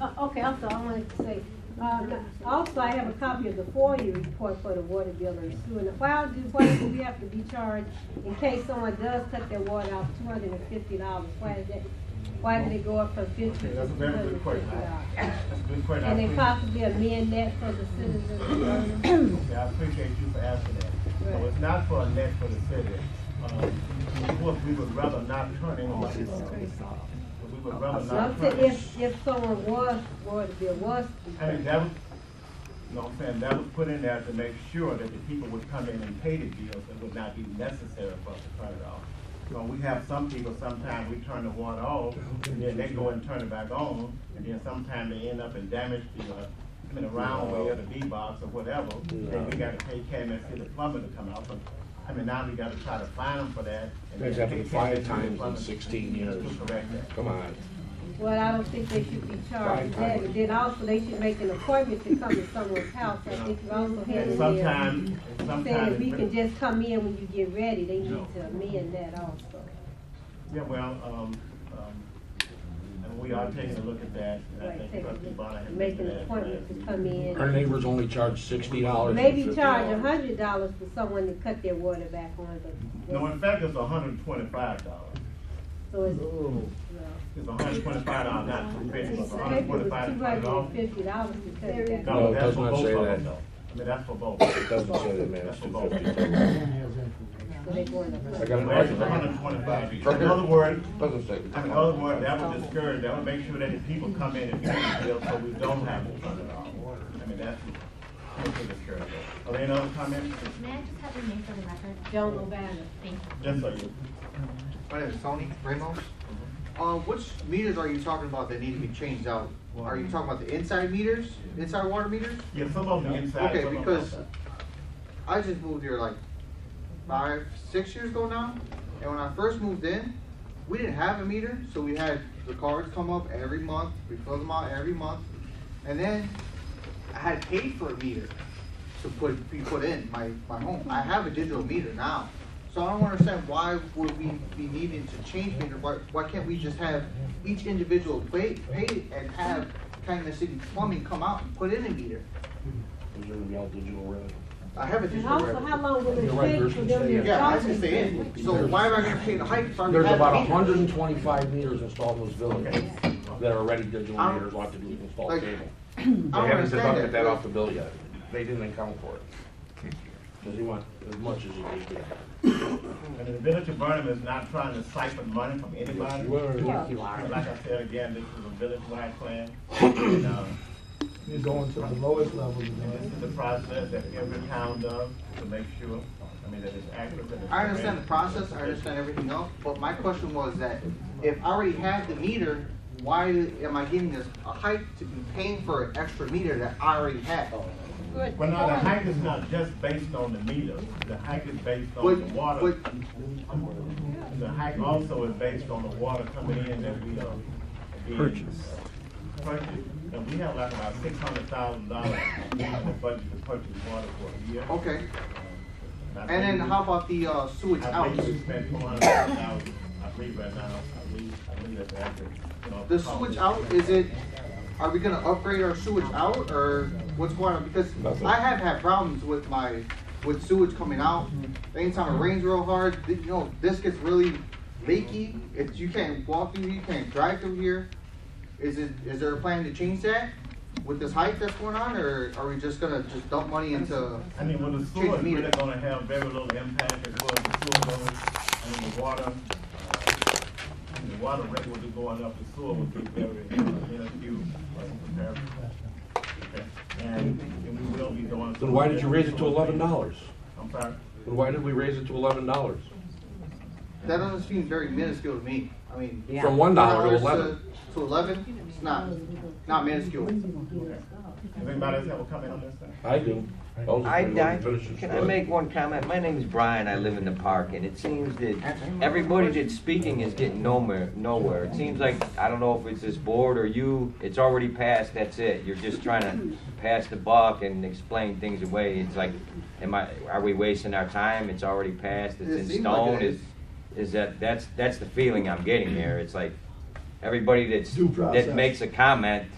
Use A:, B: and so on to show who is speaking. A: Uh, okay, also, I wanted to say, uh, also, I have a copy of the four-year report for the water bill and sewer. And Why do, why do we have to be charged in case someone does cut their water off two hundred and fifty dollars? Why is that, why did it go up from fifty
B: Okay,
A: to two
B: that's a
A: hundred
B: very
A: and
B: good
A: fifty
B: question.
A: dollars?
B: That's a good question. I
A: Can they
B: appreciate-
A: possibly amend that for the citizens of Vernon?
B: Okay, I appreciate you for asking that. So
A: Right.
B: it's not for a net for the city. Um, Of course, we would rather not turn anyone. We would rather
A: So I'm
B: not
A: saying,
B: turn.
A: if, if someone was, water bill was to be
B: I mean, that was, you know what I'm saying, that was put in there to make sure that the people would come in and pay the bills, it would not be necessary for us to turn it off. So we have some people, sometimes we turn the water off, and then they go and turn it back on, and then sometimes they end up and damage the, uh, in the round way or the D-box or whatever, and we gotta pay Calumet City Plumbing to come out, but, I mean, now we gotta try to find them for that. and
C: That's
B: then
C: happened
B: pay
C: five
B: Calumet City
C: times in
B: Plumbing
C: sixteen years.
B: To correct that.
C: Come on.
A: Well, I don't think they should be charged
C: Right.
A: that, but then also they should make an appointment to come to someone's house, I think you also had
B: And
A: in there.
B: sometimes, and
A: Saying
B: sometimes.
A: that we
B: it-
A: can just come in when you get ready, they need to amend that also.
B: Yeah, well, um, um, and we are taking a look at that, and I
A: Like,
B: think
A: take
B: trustee Bonner
A: a-
B: had
A: make
B: mentioned
A: an
B: that.
A: appointment to come
C: Our
A: in.
C: neighbors only charge sixty dollars.
A: Maybe charge a hundred dollars for someone to cut their water back on,
B: No,
A: but,
B: in fact, it's hundred and twenty-five dollars.
A: so it's,
B: It's hundred and twenty-five dollars, not two
A: well,
B: fifty, but
A: it's
B: hundred and twenty-five
A: two
B: dollars
A: hundred and fifty dollars to cut it back.
C: No,
B: No,
C: it
B: that's
C: does
B: for
C: not
B: both
C: say
B: of them,
C: that.
B: though. I mean, that's for both. It
C: Doesn't say that, man, it's
A: So they going to-
C: I got it
B: Well, it's
C: right.
B: hundred and twenty-five. In
C: Right here.
B: other words,
C: Doesn't say.
B: I mean, in other words, that would discourage, that would make sure that if people come in and pay the bill, so we don't have to turn it off. I mean, that's, that's a discouraging. Are there any other comments?
D: May I just have your name for the record?
A: Joan O'Bannon.
D: Thank you.
B: Yes, sir. you.
E: My name is Tony Ramos. Uh, which meters are you talking about that need to be changed out? Are you talking about the inside meters, inside water meters?
B: Yeah, some of them inside.
E: Okay,
B: some of them
E: because
B: outside.
E: I just moved here like five, six years ago now. And when I first moved in, we didn't have a meter, so we had the cards come up every month. We filled them out every month. And then I had paid for a meter to put, be put in my, my home. I have a digital meter now. So I don't understand why would we be needing to change meter? Why, why can't we just have each individual pay, pay and have Calumet City Plumbing come out and put in a meter?
C: Those are the all digital red.
E: I have a
A: And
E: digital.
A: also, how long will
C: You're right,
A: it take for
C: Bruce,
A: them
C: you
A: to?
C: say-
E: Yeah, I
A: charge
E: can stay in, so
C: There's-
E: why am I gonna pay the hike if I already
C: There's
E: have
C: about
E: the meter?
C: hundred and twenty-five meters installed in this village that are already digital
E: I'm-
C: meters, like to be installed
E: like-
C: cable.
E: I
C: They
E: don't
C: haven't
E: understand
C: deducted that off
E: that.
C: the bill yet. They didn't account for it. Cause he went as much as he did.
B: And the village of Burnham is not trying to siphon money from anybody. But Like I said again, this is a village-wide plan. and, uh,
F: You're going to the lowest level, you
B: And this
F: know.
B: is the process that every town does to make sure, I mean, that it's accurate. and it's
E: I understand the
B: correct.
E: process, I understand everything else, but my question was that if I already have the meter, why am I getting this, a hike to be paying for an extra meter that I already have?
B: Well, now, the hike is not just based on the meter. The hike is based on the
E: Would,
B: water.
E: would,
B: The hike also is based on the water coming in that we, uh, being Purchase. And we have like about six hundred thousand dollars in the budget to purchase water for a year.
E: okay,
B: I
E: Oh, and then
B: think-
E: how about the uh, sewage
B: I
E: out?
B: believe we spent four hundred thousand dollars, I believe right now, I believe, I believe that's accurate. you know,
E: The
B: cost.
E: sewage out, is it, are we gonna upgrade our sewage out, or what's going on? Because
C: Nothing.
E: I have had problems with my, with sewage coming out. Anytime it rains real hard, th- you know, this gets really leaky. If you can't walk through, you can't drive through here. Is it, is there a plan to change that with this hike that's going on, or are we just gonna just dump money into?
B: I mean, well, the
E: Change
B: sewer
E: the
B: is
E: meter.
B: really gonna have very little impact as well as the sewer goes, I mean, the water, uh, and the water rate will be going up, the sewer will be very, uh, minuscule, uh, in comparison. Okay. And, and we will be doing.
C: Then why did you raise it to eleven dollars?
B: I'm sorry.
C: Then why did we raise it to eleven dollars?
E: That doesn't seem very minuscule to me. I mean.
C: From one dollar to
E: $1
C: eleven.
E: To eleven, it's not, not minuscule.
B: Does anybody else have a comment on this thing?
C: I do. Those are
G: I,
C: the
G: I,
C: finishes.
G: can I make one comment? My name is Brian, I live in the park, and it seems that everybody that's speaking is getting nowhere, nowhere. It seems like, I don't know if it's this board or you, it's already passed, that's it. You're just trying to pass the buck and explain things away. It's like, am I, are we wasting our time? It's already passed,
E: It
G: it's in
E: seems like it
G: stone,
E: is.
G: is, is that, that's, that's the feeling I'm getting here. It's like, everybody that's,
F: Due
G: that
F: process.
G: makes a comment